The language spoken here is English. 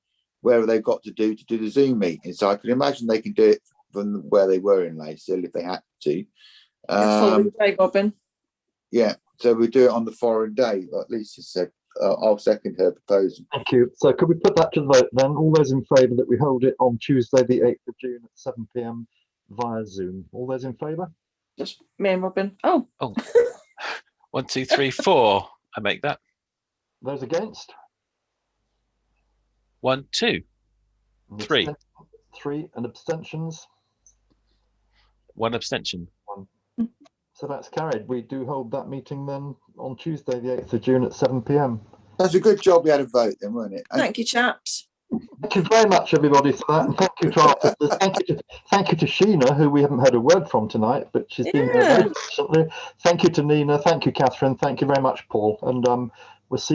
wherever they've got to do to do the Zoom meeting. So I can imagine they can do it from where they were in Lacehall if they had to. Um, Following day, Robin. yeah, so we do it on the foreign day, like Lisa said. Uh, I'll second her proposal. Thank you. So could we put that to the vote then? All those in favour that we hold it on Tuesday, the 8th of June at 7 pm via Zoom. All those in favour? Just me and Robin. Oh, One, two, three, four. I make that. Those against? One, two. And Three. absten- Three and abstentions. One abstention. So that's carried. We do hold that meeting then on Tuesday, the 8th of June at 7 pm. That's a good job we had a vote then, wasn't it? And thank you, chaps. Thank you very much, everybody, for that. And thank you to our officers. Thank you to, thank you to Sheena, who we haven't heard a word from tonight, but she's been here very patiently. Thank you to Nina. Thank you, Catherine. Thank you very much, Paul. And um,